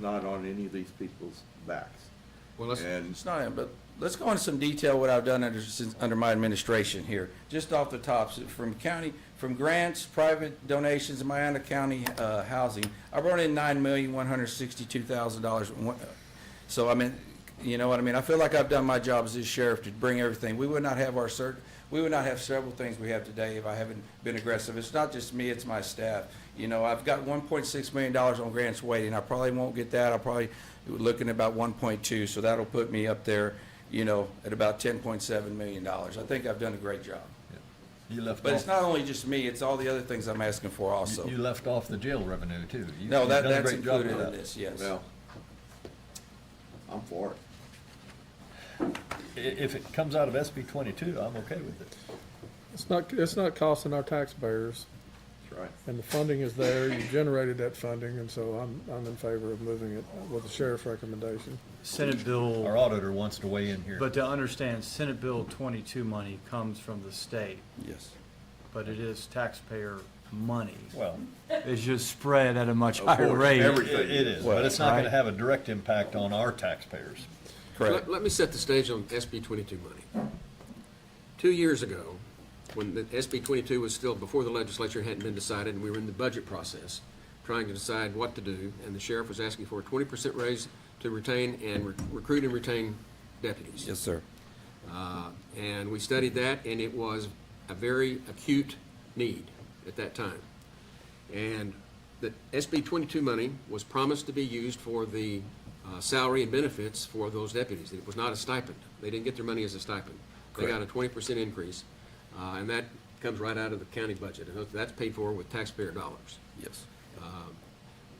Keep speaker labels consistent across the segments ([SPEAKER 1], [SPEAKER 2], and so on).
[SPEAKER 1] not on any of these people's backs.
[SPEAKER 2] Well, let's,
[SPEAKER 1] And
[SPEAKER 3] It's not, but let's go into some detail what I've done under, since, under my administration here, just off the tops, from county, from grants, private donations, Miami County, uh, housing. I brought in nine million, one hundred sixty-two thousand dollars. So I mean, you know what I mean? I feel like I've done my job as this sheriff to bring everything. We would not have our cert, we would not have several things we have today if I haven't been aggressive. It's not just me, it's my staff. You know, I've got one point six million dollars on grants waiting. I probably won't get that. I'll probably looking at about one point two, so that'll put me up there, you know, at about ten point seven million dollars. I think I've done a great job.
[SPEAKER 4] You left
[SPEAKER 3] But it's
[SPEAKER 4] off,
[SPEAKER 3] not only just me, it's all the other things I'm asking for also.
[SPEAKER 4] you left off the jail revenue too. You-
[SPEAKER 3] No,
[SPEAKER 4] you've
[SPEAKER 3] that,
[SPEAKER 4] done a
[SPEAKER 3] that's
[SPEAKER 4] great job
[SPEAKER 3] included
[SPEAKER 4] with
[SPEAKER 3] in
[SPEAKER 4] that.
[SPEAKER 3] this, yes.
[SPEAKER 1] Well, I'm for it.
[SPEAKER 4] I- If it comes out of SB twenty-two, I'm okay with it.
[SPEAKER 5] It's not, it's not costing our taxpayers,
[SPEAKER 1] That's right.
[SPEAKER 5] and the funding is there, you generated that funding, and so I'm, I'm in favor of moving it with the sheriff's recommendation.
[SPEAKER 6] Senate
[SPEAKER 4] Our
[SPEAKER 6] Bill,
[SPEAKER 4] auditor wants to weigh in here.
[SPEAKER 6] but to understand, Senate Bill 22 money comes from the state,
[SPEAKER 3] Yes.
[SPEAKER 6] but it is taxpayer money.
[SPEAKER 4] Well,
[SPEAKER 6] It's just spread at a much
[SPEAKER 1] Of
[SPEAKER 6] higher
[SPEAKER 1] course,
[SPEAKER 6] rate.
[SPEAKER 1] every-
[SPEAKER 4] it it is, but it's not
[SPEAKER 6] Well,
[SPEAKER 4] gonna have a direct impact on our taxpayers.
[SPEAKER 3] Correct.
[SPEAKER 7] Let, let me set the stage on SB twenty-two money. Two years ago, when the SB twenty-two was still, before the legislature hadn't been decided, and we were in the budget process, trying to decide what to do, and the sheriff was asking for a twenty percent raise to retain and re- recruit and retain deputies.
[SPEAKER 3] Yes, sir.
[SPEAKER 7] Uh, And we studied that, and it was a very acute need at that time. And the SB 22 money was promised to be used for the uh, salary and benefits for those deputies. It was not a stipend. They didn't get their money as a stipend. They got a 20% increase, uh, and that comes right out of the county budget. And that's paid for with taxpayer dollars.
[SPEAKER 3] Yes.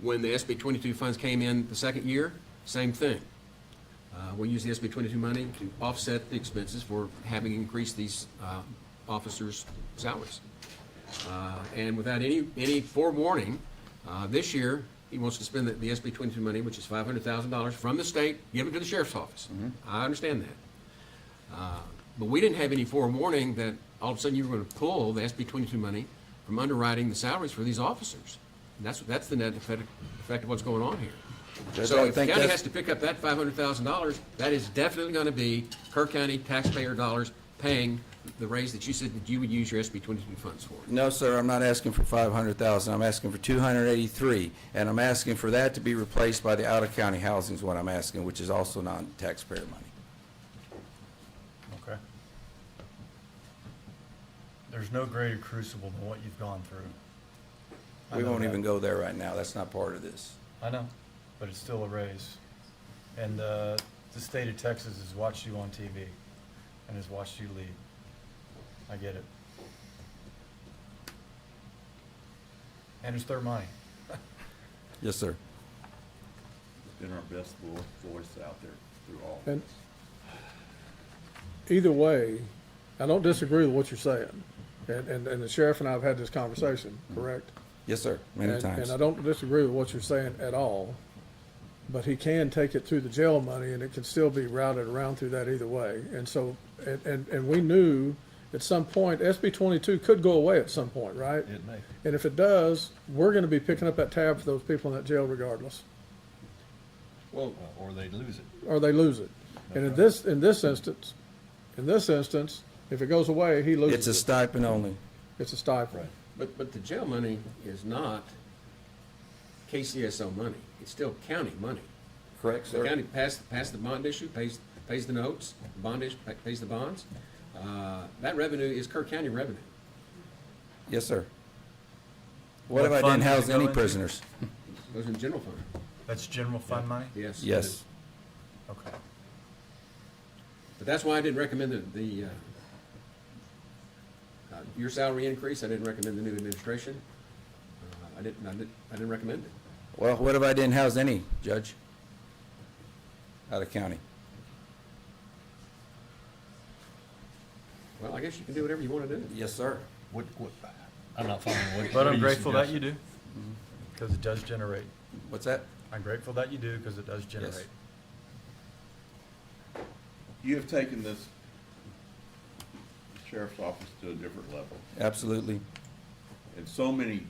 [SPEAKER 7] When the SB 22 funds came in the second year, same thing. Uh, We'll use the SB 22 money to offset the expenses for having increased these uh, officers' salaries. Uh, And without any, any forewarning, uh, this year, he wants to spend the- the SB 22 money, which is $500,000 from the state, given to the sheriff's office.
[SPEAKER 3] Mm-hmm.
[SPEAKER 7] I understand that. Uh, But we didn't have any forewarning that all of a sudden you were going to pull the SB 22 money from underwriting the salaries for these officers. And that's, that's the net effect effect of what's going on here.
[SPEAKER 3] Judge,
[SPEAKER 7] So if
[SPEAKER 3] I
[SPEAKER 7] the
[SPEAKER 3] think
[SPEAKER 7] county
[SPEAKER 3] that's-
[SPEAKER 7] has to pick up that $500,000, that is definitely going to be Kirk County taxpayer dollars paying the raise that you said that you would use your SB 22 funds for.
[SPEAKER 3] No, sir, I'm not asking for five hundred thousand, I'm asking for two hundred eighty-three, and I'm asking for that to be replaced by the out-of-county housing is what I'm asking, which is also non-taxpayer money.
[SPEAKER 6] Okay. There's no greater crucible than what you've gone through. I
[SPEAKER 3] We
[SPEAKER 6] know
[SPEAKER 3] won't
[SPEAKER 6] that.
[SPEAKER 3] even go there right now, that's not part of this.
[SPEAKER 6] I know, but it's still a raise. And uh, the state of Texas has watched you on TV and has watched you lead. I get it. And it's their money.
[SPEAKER 3] Yes, sir.
[SPEAKER 1] Been our best vo- voice out there through all.
[SPEAKER 5] And either way, I don't disagree with what you're saying, and, and, and the sheriff and I have had this conversation, correct?
[SPEAKER 3] Yes, sir, many
[SPEAKER 5] And-
[SPEAKER 3] times.
[SPEAKER 5] And I don't disagree with what you're saying at all, but he can take it through the jail money and it can still be routed around through that either way. And so, and, and, and we knew at some point, SB twenty-two could go away at some point, right?
[SPEAKER 4] It may.
[SPEAKER 5] And if it does, we're gonna be picking up that tab for those people in that jail regardless,
[SPEAKER 4] Well. Or they'd lose it.
[SPEAKER 5] or they lose it. And in this, in this instance, in this instance, if it goes away, he
[SPEAKER 3] It's a
[SPEAKER 5] loses it.
[SPEAKER 3] stipend only.
[SPEAKER 5] It's a stipend.
[SPEAKER 7] But, but the jail money is not KCSO money. It's still county money.
[SPEAKER 3] Correct,
[SPEAKER 7] The county passed, passed the bond issue, pays, pays the notes, bond issue, pays the bonds. Uh, That revenue is Kirk County revenue.
[SPEAKER 3] Yes, sir. What if
[SPEAKER 6] What
[SPEAKER 3] I
[SPEAKER 6] fund
[SPEAKER 3] didn't
[SPEAKER 6] did it
[SPEAKER 3] house
[SPEAKER 6] go
[SPEAKER 3] any
[SPEAKER 6] into?
[SPEAKER 3] prisoners?
[SPEAKER 7] Goes in general fund,
[SPEAKER 6] That's general fund money?
[SPEAKER 7] yes.
[SPEAKER 3] Yes,
[SPEAKER 6] Okay.
[SPEAKER 7] But that's why I didn't recommend the, the, uh, uh, your salary increase, I didn't recommend the new administration. Uh, I didn't, I didn't, I didn't recommend it.
[SPEAKER 3] well, what if I didn't house any, Judge? Out of county.
[SPEAKER 7] Well, I guess you can do whatever you want to do.
[SPEAKER 3] Yes, sir.
[SPEAKER 4] What, what, I'm not following what.
[SPEAKER 6] But
[SPEAKER 4] what are
[SPEAKER 6] I'm grateful that you
[SPEAKER 4] suggesting?
[SPEAKER 6] do, because Mm-hmm. it does generate.
[SPEAKER 3] What's that?
[SPEAKER 6] I'm grateful that you do, because it does generate.
[SPEAKER 1] You have taken this sheriff's office to a different level,
[SPEAKER 3] Absolutely.
[SPEAKER 1] and so many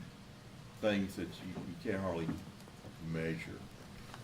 [SPEAKER 1] things that you, you can't hardly measure.